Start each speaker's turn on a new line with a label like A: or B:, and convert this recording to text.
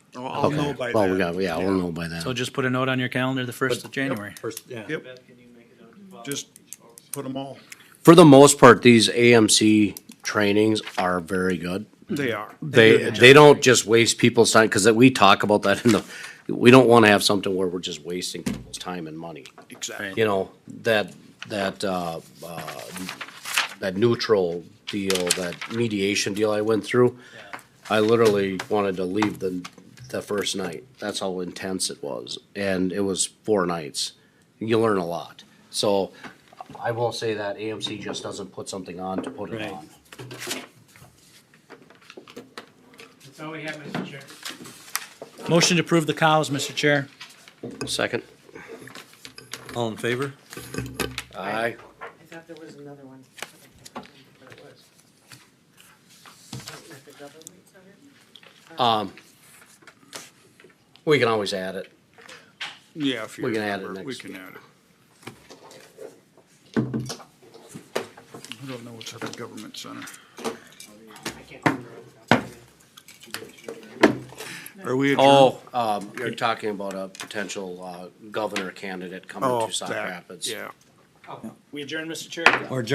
A: I'll, I'll
B: Okay.
A: know by
B: Well, we
A: that.
B: got, yeah, we'll know by then.
C: So just put a note on your calendar, the first of January.
D: First, yeah.
A: Yep, just put them all.
B: For the most part, these AMC trainings are very good.
A: They are.
B: They, they don't just waste people's time, because we talk about that in the, we don't want to have something where we're just wasting people's time and money.
A: Exactly.
B: You know, that, that, uh, uh, that neutral deal, that mediation deal I went through, I literally wanted to leave the, the first night. That's how intense it was. And it was four nights. You learn a lot. So I will say that AMC just doesn't put something on to put it
D: Right.
B: on.
E: That's all we have, Mr. Chair.
C: Motion to approve the cows, Mr. Chair.
B: Second?
D: All in favor?
B: Aye.
F: I thought there was another one. I don't remember what it was. Something with the government center?
B: Um, we can always add it.
A: Yeah, if you
B: We can add it
A: remember, we
B: next
A: can add it. I don't know what's at the government center.
F: I can't remember. off the top of my head.
A: Are we adjourned?
B: Oh, um, you're talking about a potential, uh, governor candidate coming
A: Oh,
B: to Sauk
A: that,
B: Rapids.
A: Yeah.
E: We adjourn, Mr. Chair.
D: Or